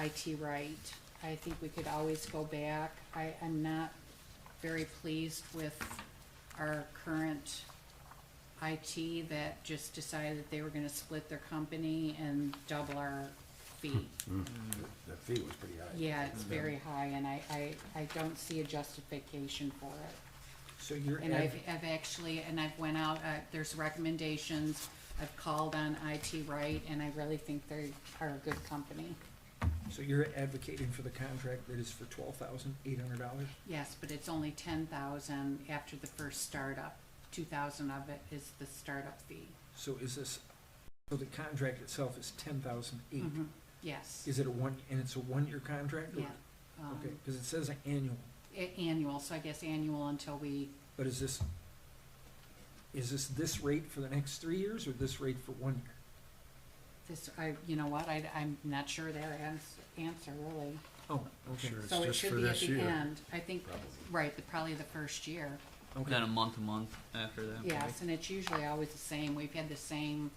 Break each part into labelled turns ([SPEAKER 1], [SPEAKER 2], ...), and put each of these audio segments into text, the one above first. [SPEAKER 1] IT um, right. I think we could always go back. I, I'm not very pleased with our current IT that just decided they were gonna split their company and double our fee.
[SPEAKER 2] The fee was pretty high.
[SPEAKER 1] Yeah, it's very high and I, I, I don't see a justification for it.
[SPEAKER 3] So you're,
[SPEAKER 1] And I've,
[SPEAKER 3] adv-
[SPEAKER 1] I've actually, and I've went out, uh, there's recommendations, I've called on IT Right, and I really think they are a good company.
[SPEAKER 3] so you're advocating for the contract that is for twelve thousand eight hundred dollars?
[SPEAKER 1] Yes, but it's only ten thousand after the first startup, two thousand of it is the startup fee.
[SPEAKER 3] So is this, so the contract itself is ten thousand eight?
[SPEAKER 1] Mhm. Yes,
[SPEAKER 3] Is it a one, and it's a one-year contract? or-
[SPEAKER 1] yeah. Um,
[SPEAKER 3] Okay, because it says annual,
[SPEAKER 1] a- Annual, so I guess annual until we,
[SPEAKER 3] but is this, is this this rate for the next three years or this rate for one year?
[SPEAKER 1] this, I, you know what, I, I'm not sure their ans- answer really.
[SPEAKER 3] Oh,
[SPEAKER 2] I'm
[SPEAKER 3] okay,
[SPEAKER 2] sure it's
[SPEAKER 1] So it
[SPEAKER 2] just for
[SPEAKER 1] should be at
[SPEAKER 2] this
[SPEAKER 1] the
[SPEAKER 2] year.
[SPEAKER 1] end, I think,
[SPEAKER 2] probably.
[SPEAKER 1] right, the- probably the first year.
[SPEAKER 3] okay.
[SPEAKER 4] Then a month, a month after that.
[SPEAKER 1] Yes, and it's usually always the same, we've had the same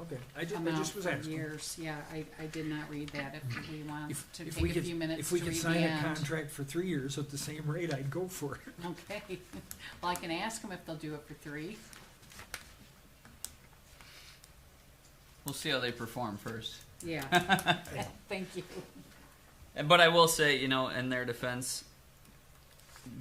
[SPEAKER 3] Okay, I just, I
[SPEAKER 1] amount
[SPEAKER 3] just was
[SPEAKER 1] for
[SPEAKER 3] asking.
[SPEAKER 1] years, yeah, I, I did not read that, if we want
[SPEAKER 3] If-
[SPEAKER 1] to
[SPEAKER 3] if
[SPEAKER 1] take
[SPEAKER 3] we
[SPEAKER 1] a
[SPEAKER 3] could-
[SPEAKER 1] few minutes
[SPEAKER 3] If
[SPEAKER 1] to
[SPEAKER 3] we
[SPEAKER 1] read
[SPEAKER 3] could
[SPEAKER 1] the
[SPEAKER 3] sign a
[SPEAKER 1] end.
[SPEAKER 3] contract for three years at the same rate, I'd go for it.
[SPEAKER 1] Okay, well, I can ask them if they'll do it for three,
[SPEAKER 4] We'll see how they perform first.
[SPEAKER 1] yeah, thank you,
[SPEAKER 4] And- But I will say, you know, in their defense,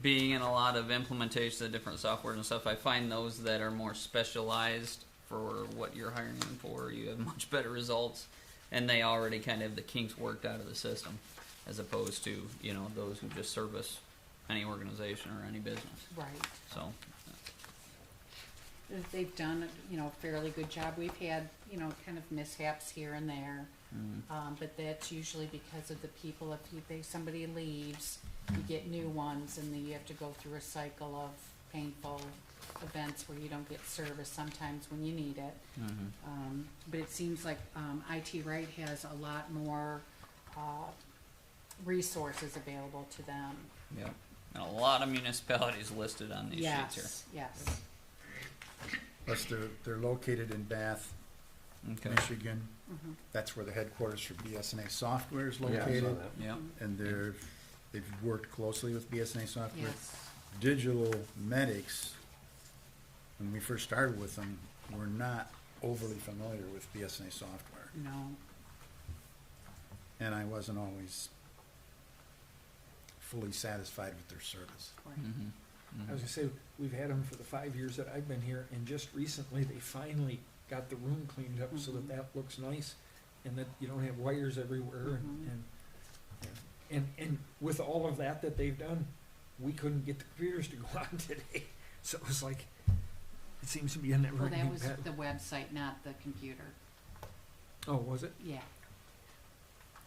[SPEAKER 4] being in a lot of implementations of different software and stuff, I find those that are more specialized for what you're hiring them for, you have much better results, and they already kind of have the kinks worked out of the system, as opposed to you know those who just service any organization or any business.
[SPEAKER 1] right.
[SPEAKER 4] So
[SPEAKER 1] They've done, you know, a fairly good job, we've had, you know, kind of mishaps here and there,
[SPEAKER 4] mm,
[SPEAKER 1] um, but that's usually because of the people, if you, they, somebody leaves, you get new ones, and then you have to go through a cycle of painful events where you don't get service sometimes when you need it.
[SPEAKER 4] mhm.
[SPEAKER 1] Um, but it seems like, um, IT Right has a lot more, uh, resources available to them.
[SPEAKER 4] yeah, and a lot of municipalities listed on these sheets
[SPEAKER 1] Yes, yes,
[SPEAKER 2] Plus, they're, they're located in Bath,
[SPEAKER 4] here. Okay.
[SPEAKER 2] Michigan.
[SPEAKER 1] Mhm.
[SPEAKER 2] That's where the headquarters for BSNA Software is
[SPEAKER 5] Yeah, I saw
[SPEAKER 2] located.
[SPEAKER 5] that.
[SPEAKER 4] Yeah.
[SPEAKER 2] And they're, they've worked closely with BSNA Software.
[SPEAKER 1] yes,
[SPEAKER 2] Digital medics, when we first started with them, were not overly familiar with BSNA Software.
[SPEAKER 1] no,
[SPEAKER 2] And I wasn't always fully satisfied with their service.
[SPEAKER 1] right,
[SPEAKER 4] Mhm. Mhm.
[SPEAKER 3] I was gonna say, we've had them for the five years that I've been here, and just recently, they finally got the room cleaned up so
[SPEAKER 1] Mhm.
[SPEAKER 3] that that looks nice, and that you don't have wires everywhere,
[SPEAKER 1] Mhm.
[SPEAKER 3] and, and, and, and with all of that that they've done, we couldn't get the computers to go on today, so it was like, it seems to be a never
[SPEAKER 1] well, that
[SPEAKER 3] ending
[SPEAKER 1] was
[SPEAKER 3] battle.
[SPEAKER 1] the website, not the computer,
[SPEAKER 3] Oh, was it?
[SPEAKER 1] yeah,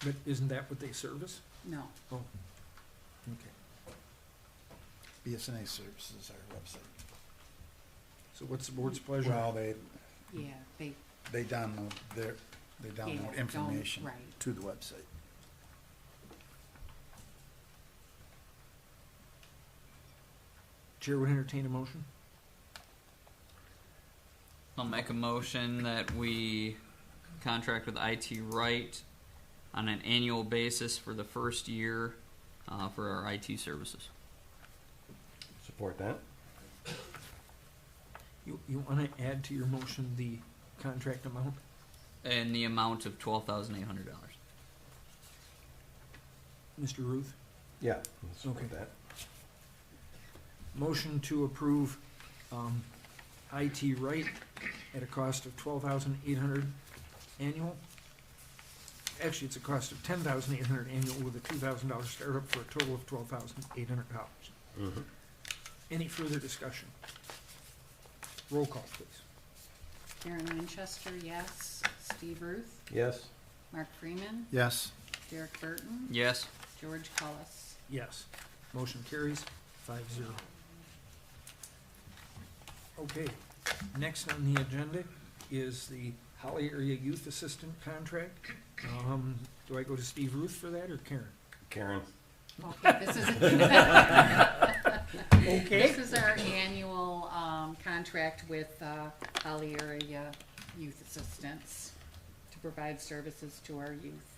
[SPEAKER 3] But isn't that what they service?
[SPEAKER 1] no,
[SPEAKER 3] Okay.
[SPEAKER 2] BSNA services, our website.
[SPEAKER 3] So what's the board's
[SPEAKER 1] Mm-hmm.
[SPEAKER 3] pleasure?
[SPEAKER 2] Well, they,
[SPEAKER 1] yeah, they,
[SPEAKER 2] they download their, they
[SPEAKER 1] yeah,
[SPEAKER 2] download
[SPEAKER 1] don't,
[SPEAKER 2] information
[SPEAKER 1] right,
[SPEAKER 2] to the website.
[SPEAKER 3] Chair would entertain a motion?
[SPEAKER 4] I'll make a motion that we contract with IT Right on an annual basis for the first year uh, for our IT services.
[SPEAKER 5] Support that?
[SPEAKER 3] You, you wanna add to your motion the contract amount?
[SPEAKER 4] And the amount of $12,800.
[SPEAKER 3] Mr. Ruth?
[SPEAKER 5] Yeah. I'll Support
[SPEAKER 3] Okay.
[SPEAKER 5] that.
[SPEAKER 3] Motion to approve um, IT right at a cost of twelve thousand eight hundred annual. Actually, it's a cost of ten thousand eight hundred annual with a two thousand dollar startup for a total of twelve thousand eight hundred dollars.
[SPEAKER 5] Mhm.
[SPEAKER 3] Any further discussion? Roll call, please.
[SPEAKER 1] Karen Winchester, yes, Steve Ruth,
[SPEAKER 5] Yes.
[SPEAKER 1] Mark Freeman,
[SPEAKER 2] Yes,
[SPEAKER 1] Derek Burton,
[SPEAKER 4] Yes.
[SPEAKER 1] George Cullis.
[SPEAKER 3] Yes. Motion carries five zero. Okay, next on the agenda is the Holly Area Youth Assistant Contract. Um, do I go to Steve Ruth for that or Karen?
[SPEAKER 5] Karen?
[SPEAKER 1] Okay, this is. This is our annual, um, contract with, uh, Holly Area Youth Assistance to provide services to our youth.